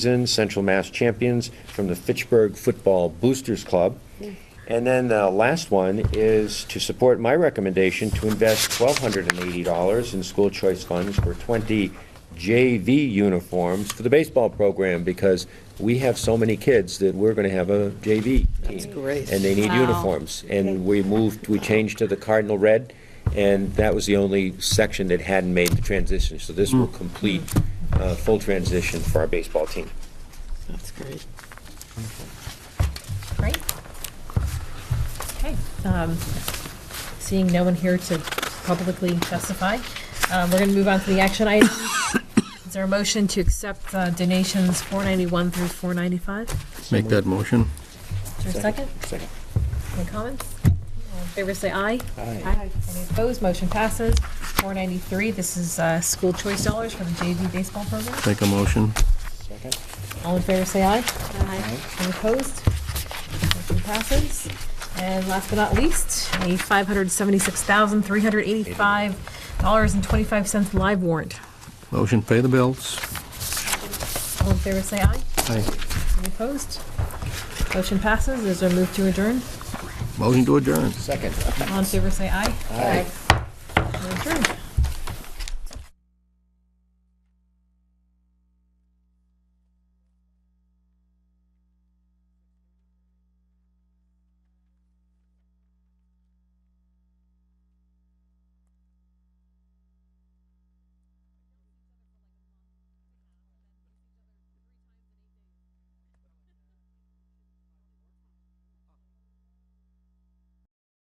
in Central Mass Champions from the Fitchburg Football Boosters Club. And then the last one is to support my recommendation to invest $1,280 in school choice funds for 20 JV uniforms for the baseball program because we have so many kids that we're going to have a JV team. That's great. And they need Wow. uniforms. And we moved, we changed to the cardinal red, and that was the only section that hadn't made the transition. So this will complete uh full transition for our baseball team. That's great. Great. Okay. um, Seeing no one here to publicly testify, um, we're going to move on to the action items. Is there a motion to accept uh, donations 491 through 495? Make that motion. Is there a second? Second. Any comments? All in favor, say aye. Any opposed? Motion passes. 493, this is uh, school choice dollars for the JV baseball program. Make a motion. Second. All in favor, say aye. Aye. Any opposed? Motion passes. And last but not least, a $576,385.25 live warrant. Motion, pay the bills. All in favor, say aye. Aye. Any opposed? Motion passes. Is there a move to adjourn? Motion to adjourn. Second. All in favor, say aye. Aye.